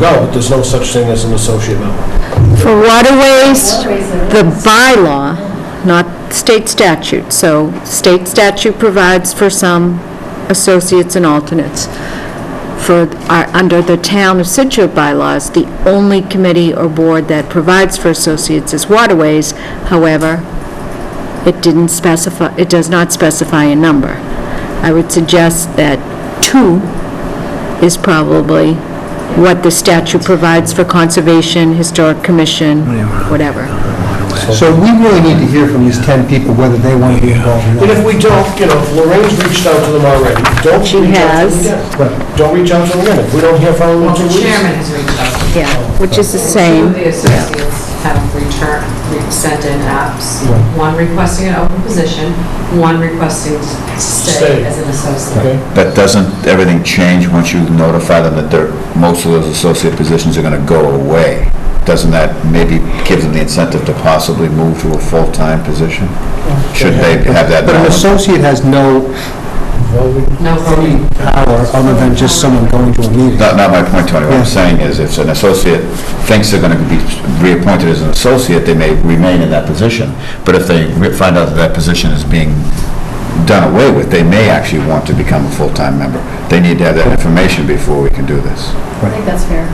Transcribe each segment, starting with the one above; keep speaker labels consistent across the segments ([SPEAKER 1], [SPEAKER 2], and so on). [SPEAKER 1] No, but there's no such thing as an associate member.
[SPEAKER 2] For waterways, the bylaw, not state statute, so state statute provides for some associates and alternates. For, our- under the town of Situate bylaws, the only committee or board that provides for associates is waterways. However, it didn't specify, it does not specify a number. I would suggest that two is probably what the statute provides for conservation, historic commission, whatever.
[SPEAKER 3] So we really need to hear from these 10 people whether they want to be involved or
[SPEAKER 1] And
[SPEAKER 3] not.
[SPEAKER 1] if we don't, you know, Lorraine's reached out to them already. Don't
[SPEAKER 2] She
[SPEAKER 1] reach out to
[SPEAKER 2] has.
[SPEAKER 1] them again. Don't reach out to them again. If we don't hear from them in
[SPEAKER 4] Well,
[SPEAKER 1] two
[SPEAKER 4] the
[SPEAKER 1] weeks.
[SPEAKER 4] chairman has reached out. to
[SPEAKER 2] Yeah, which is the
[SPEAKER 4] people. Two
[SPEAKER 2] same.
[SPEAKER 4] of the associates have returned, re- sent in apps, one requesting an open position, one requesting to
[SPEAKER 1] Stay.
[SPEAKER 4] stay as an associate.
[SPEAKER 1] Okay.
[SPEAKER 5] But doesn't everything change once you notify them that they're, most of those associate positions are going to go away? Doesn't that maybe give them the incentive to possibly move to a full-time position? Should they have that
[SPEAKER 3] But an
[SPEAKER 5] knowledge?
[SPEAKER 3] associate has no
[SPEAKER 1] Well, we-
[SPEAKER 4] No voting.
[SPEAKER 3] power other than just someone going to a meeting.
[SPEAKER 5] Not, not my point, Tony. What
[SPEAKER 3] Yeah.
[SPEAKER 5] I'm saying is if an associate thinks they're going to be reappointed as an associate, they may remain in that position. But if they re- find out that that position is being done away with, they may actually want to become a full-time member. They need to have that information before we can do this.
[SPEAKER 6] I think that's fair.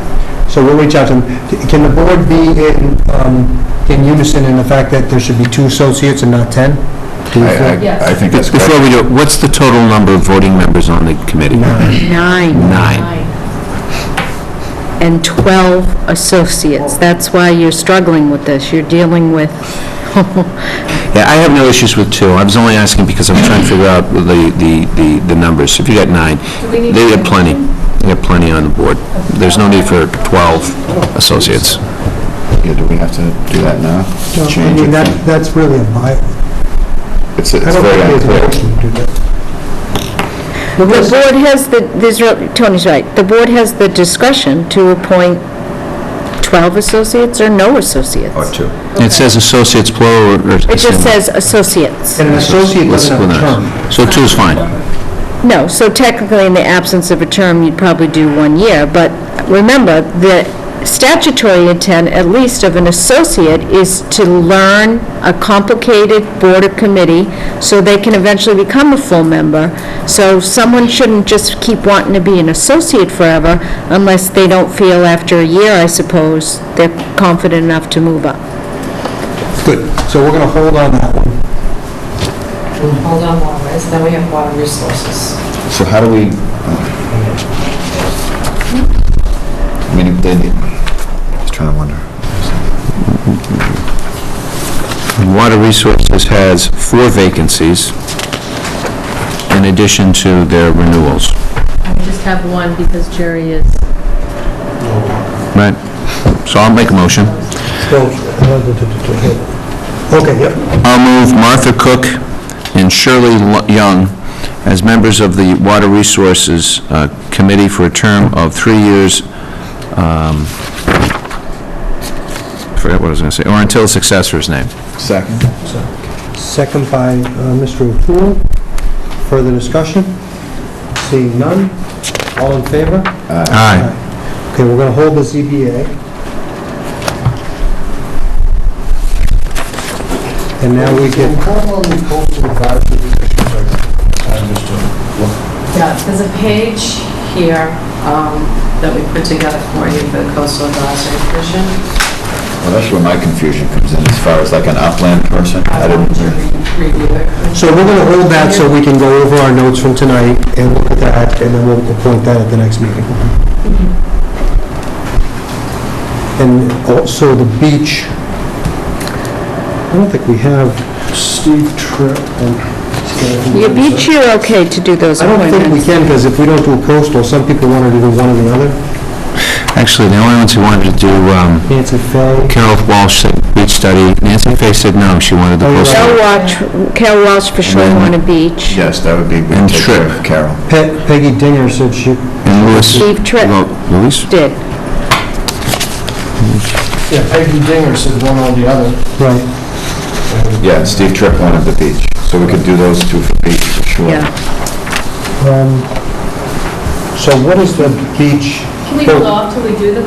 [SPEAKER 3] So we'll reach out to them. Can the board be in um, in unison in the fact that there should be two associates and not 10? Do we
[SPEAKER 5] I-
[SPEAKER 3] feel-
[SPEAKER 5] I, I think that's correct.
[SPEAKER 7] Before we do, it, what's the total number of voting members on the committee?
[SPEAKER 2] Nine
[SPEAKER 7] Nine.
[SPEAKER 6] Aye.
[SPEAKER 2] and 12 associates. That's why you're struggling with this. You're dealing with,
[SPEAKER 7] Yeah, I have no issues with two. I was only asking because I'm trying to figure out the, the, the the numbers. If you got nine,
[SPEAKER 6] we need
[SPEAKER 7] they
[SPEAKER 6] to-
[SPEAKER 7] got plenty. They got plenty on the board. There's no need for 12 associates.
[SPEAKER 5] Yeah, do we have to do that now?
[SPEAKER 3] No, I
[SPEAKER 5] Change
[SPEAKER 3] mean, that,
[SPEAKER 5] it?
[SPEAKER 3] that's really a by,
[SPEAKER 5] It's, it's
[SPEAKER 3] I don't
[SPEAKER 5] very
[SPEAKER 3] think there's a
[SPEAKER 5] unclear.
[SPEAKER 3] motion to do that.
[SPEAKER 2] the board has the, there's, real- Tony's right, the board has the discretion to appoint 12 associates or no associates.
[SPEAKER 5] Or two.
[SPEAKER 7] It says associates plural or...
[SPEAKER 2] It just says associates.
[SPEAKER 3] And an associate
[SPEAKER 7] Let's
[SPEAKER 3] doesn't have a
[SPEAKER 7] split
[SPEAKER 3] term.
[SPEAKER 7] that. So two is fine.
[SPEAKER 2] No, so technically, in the absence of a term, you'd probably do one year, but remember, the statutory intent, at least of an associate, is to learn a complicated board or committee, so they can eventually become a full member. So someone shouldn't just keep wanting to be an associate forever, unless they don't feel after a year, I suppose, they're confident enough to move up.
[SPEAKER 3] Good. So we're going to hold on that one.
[SPEAKER 4] Hold on waterways, then we have water resources.
[SPEAKER 5] So how do we? uh, I mean, they, just trying to wonder.
[SPEAKER 7] Water Resources has four vacancies in addition to their renewals.
[SPEAKER 6] I just have one because Jerry is.
[SPEAKER 7] Right. So I'll make a motion.
[SPEAKER 3] Okay, yep.
[SPEAKER 7] I'll move Martha Cook and Shirley Lo- Young as members of the Water Resources uh, Committee for a term of three years, um, forget what I was going to say, or until a successor is named.
[SPEAKER 5] Second?
[SPEAKER 3] Second by uh, Mr. O'Toole. Further discussion? Seeing none. All in favor?
[SPEAKER 7] Aye.
[SPEAKER 3] Okay, we're going to hold the ZBA. And now we get,
[SPEAKER 1] How long the coastal advisory commissions are, I'm just doing.
[SPEAKER 4] Yeah, there's a page here um, that we put together for you for the coastal advisory commission.
[SPEAKER 5] Well, that's where my confusion comes in, as far as like an upland person.
[SPEAKER 4] I
[SPEAKER 5] I didn't,
[SPEAKER 4] wanted to re- review it.
[SPEAKER 3] so we're going to hold that so we can go over our notes from tonight and look at that, and then we'll appoint that at the next meeting. And also the beach. I don't think we have Steve Tripp and...
[SPEAKER 2] You beat you okay to do those
[SPEAKER 3] I don't
[SPEAKER 2] appointments.
[SPEAKER 3] think we can, because if we don't do a coastal, some people want to do one or the other.
[SPEAKER 7] Actually, the only ones who wanted to do, um,
[SPEAKER 3] Nancy Faye.
[SPEAKER 7] Carol Walsh said beach study, Nancy Faye said no, she wanted the
[SPEAKER 3] Oh, you're
[SPEAKER 7] coastal.
[SPEAKER 2] Cal Walsh, Cal Walsh for Shoreline and Beach,
[SPEAKER 5] yes, that would be, we
[SPEAKER 7] And
[SPEAKER 5] take care
[SPEAKER 7] Tripp.
[SPEAKER 5] of Carol.
[SPEAKER 3] Pe- Peggy Dinger said she,
[SPEAKER 7] And Louis,
[SPEAKER 2] Steve Tripp
[SPEAKER 7] well, Louis?
[SPEAKER 2] did.
[SPEAKER 1] Yeah, Peggy Dinger said one or the other.
[SPEAKER 3] right,
[SPEAKER 5] Yeah, and Steve Tripp wanted the beach, so we could do those two for beach, for sure.
[SPEAKER 2] Yeah,
[SPEAKER 3] um, so what is the beach?
[SPEAKER 6] Can we
[SPEAKER 3] Well-
[SPEAKER 6] hold off till we do the